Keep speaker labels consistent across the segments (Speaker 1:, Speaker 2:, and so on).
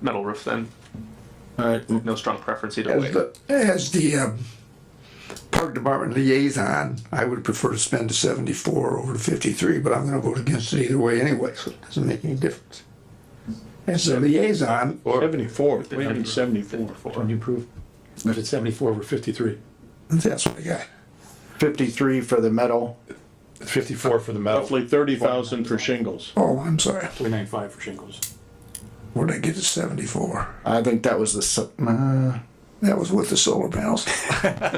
Speaker 1: metal roof then.
Speaker 2: All right.
Speaker 1: No strong preference either way.
Speaker 3: As the, as the um, park department liaison, I would prefer to spend the seventy-four over the fifty-three, but I'm gonna vote against it either way anyway, so it doesn't make any difference. As a liaison, or,
Speaker 4: Seventy-four, we have
Speaker 1: Seventy-
Speaker 4: seventy-four.
Speaker 1: Seventy-four.
Speaker 5: Can you prove? If it's seventy-four over fifty-three.
Speaker 3: that's what I got.
Speaker 5: Fifty-three for the metal.
Speaker 4: Fifty-four for the metal. Roughly thirty thousand for shingles.
Speaker 3: Oh, I'm sorry,
Speaker 5: Three nine five for shingles.
Speaker 3: where'd I get the seventy-four?
Speaker 5: I think that was the, s- uh,
Speaker 3: That was with the solar panels.
Speaker 4: That's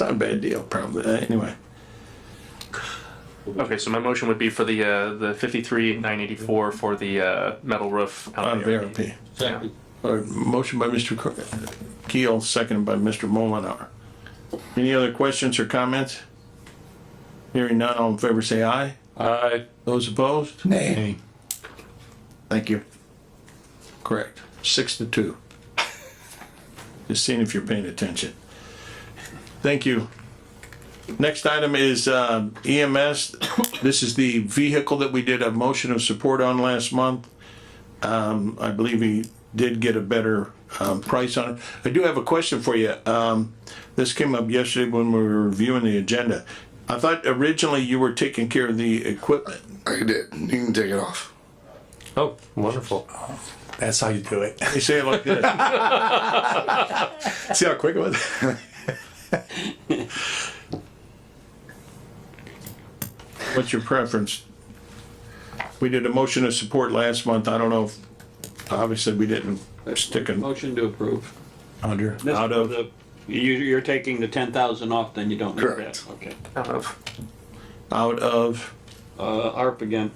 Speaker 4: not a bad deal, probably, Uh, anyway.
Speaker 1: Okay, so my motion would be for the uh, the fifty-three nine eighty-four for the uh, metal roof
Speaker 4: On
Speaker 1: VRP.
Speaker 4: VRP. Uh, Motion by Mr. Cr- Keel, seconded by Mr. Mullenhour. Any other questions or comments? Hearing none, all in favor say aye. Aye. Those opposed?
Speaker 3: Nay,
Speaker 4: Thank you. Correct. Six to two. Just seeing if you're paying attention. Thank you. Next item is um, EMS. This is the vehicle that we did a motion of support on last month. Um, I believe we did get a better um, price on it. I do have a question for you. Um, This came up yesterday when we were reviewing the agenda. I thought originally you were taking care of the equipment.
Speaker 6: I did. You can take it off.
Speaker 5: Oh, wonderful. That's how you do it.
Speaker 4: They say it like this.
Speaker 5: See how quick it was?
Speaker 4: What's your preference? We did a motion of support last month. I don't know if, obviously, we didn't stick it
Speaker 7: Motion to approve.
Speaker 4: under,
Speaker 7: This-
Speaker 4: out of.
Speaker 7: the- You, you're taking the ten thousand off, then you don't need that.
Speaker 6: Correct.
Speaker 7: Okay.
Speaker 4: out of,
Speaker 7: Uh, ARP again.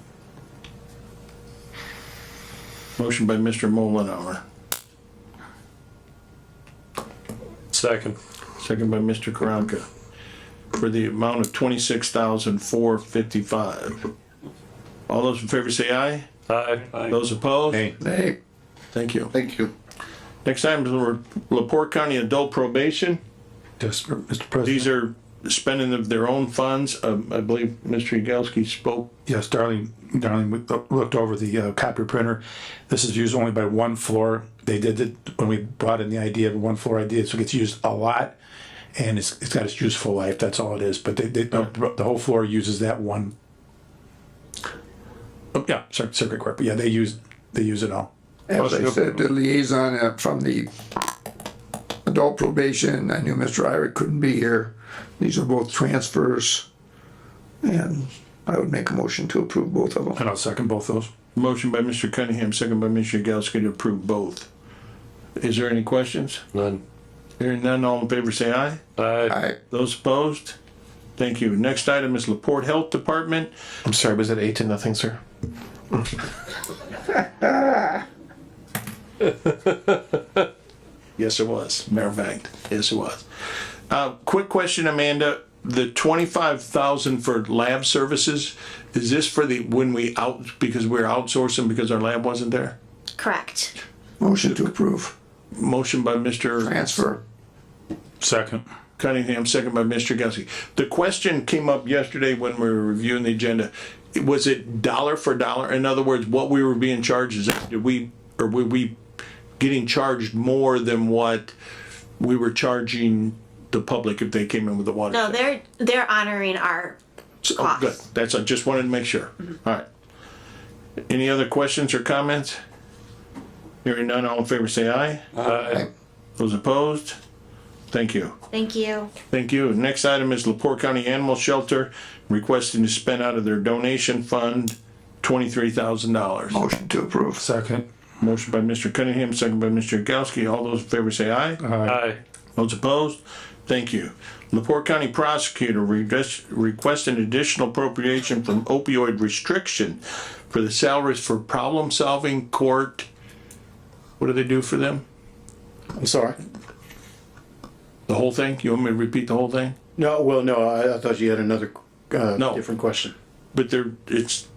Speaker 4: motion by Mr. Mullenhour,
Speaker 5: Second.
Speaker 4: second by Mr. Karanka, for the amount of twenty-six thousand four fifty-five. All those in favor say aye.
Speaker 5: Aye.
Speaker 7: uh,
Speaker 4: Those opposed?
Speaker 5: Aye.
Speaker 3: nay,
Speaker 4: Thank you.
Speaker 6: Thank you.
Speaker 4: Next item is the Laporte County Adult Probation.
Speaker 5: Just, Mr. President.
Speaker 4: These are spending of their own funds. Um, I believe Mr. Yagowski spoke
Speaker 8: Yes, Darlene, Darlene we looked over the uh, copy printer. This is used only by one floor. They did it when we brought in the idea of a one floor idea, so it gets used a lot. And it's, it's got its useful life, that's all it is, but they, they, the the whole floor uses that one. Oh, yeah, cir- circuit court, but yeah, they use, they use it all.
Speaker 3: as I said, the liaison uh, from the adult probation, I knew Mr. Ira couldn't be here. These are both transfers, and I would make a motion to approve both of them.
Speaker 8: And I'll second both those.
Speaker 4: Motion by Mr. Cunningham, second by Mr. Yagowski to approve both. Is there any questions?
Speaker 5: None.
Speaker 4: Hearing none, all in favor say aye.
Speaker 3: I,
Speaker 4: Those opposed? Thank you. Next item is Laporte Health Department.
Speaker 2: I'm sorry, was it eight to nothing, sir?
Speaker 4: Yes, it was. Matter of fact, yes, it was. Uh, quick question, Amanda. The twenty-five thousand for lab services, is this for the, when we out, because we're outsourcing because our lab wasn't there?
Speaker 9: Correct.
Speaker 3: motion to approve,
Speaker 4: Motion by Mr.
Speaker 3: transfer.
Speaker 8: Second.
Speaker 4: Cunningham, second by Mr. Gussie. The question came up yesterday when we were reviewing the agenda. Was it dollar for dollar? In other words, what we were being charged is, did we, or were we getting charged more than what we were charging the public if they came in with the water?
Speaker 9: No, they're they're honoring our
Speaker 4: Oh,
Speaker 9: costs.
Speaker 4: good. That's, I just wanted to make sure. All right. Any other questions or comments? Hearing none, all in favor, say aye. Aye. Those opposed? Thank you.
Speaker 9: Thank you.
Speaker 4: Thank you. Next item is Lepore County Animal Shelter requesting to spend out of their donation fund twenty-three thousand dollars.
Speaker 3: Motion to approve.
Speaker 8: Second.
Speaker 4: Motion by Mr. Cunningham, second by Mr. Yagowski. All those in favor say aye.
Speaker 8: Aye.
Speaker 4: Those opposed? Thank you. Lepore County Prosecutor request- requesting additional appropriation from opioid restriction for the salaries for problem-solving court. What do they do for them?
Speaker 5: I'm sorry.
Speaker 4: The whole thing? You want me to repeat the whole thing?
Speaker 5: No, well, no, I, I thought you had another, uh,
Speaker 4: No.
Speaker 5: different question.
Speaker 4: But they're, it's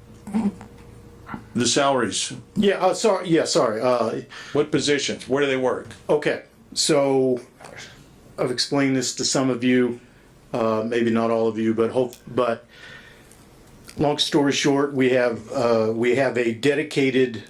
Speaker 4: the salaries.
Speaker 5: Yeah, uh, sorry, yeah, sorry, uh,
Speaker 4: What positions? Where do they work?
Speaker 5: Okay, so I've explained this to some of you, uh, maybe not all of you, but hope, but long story short, we have, uh, we have a dedicated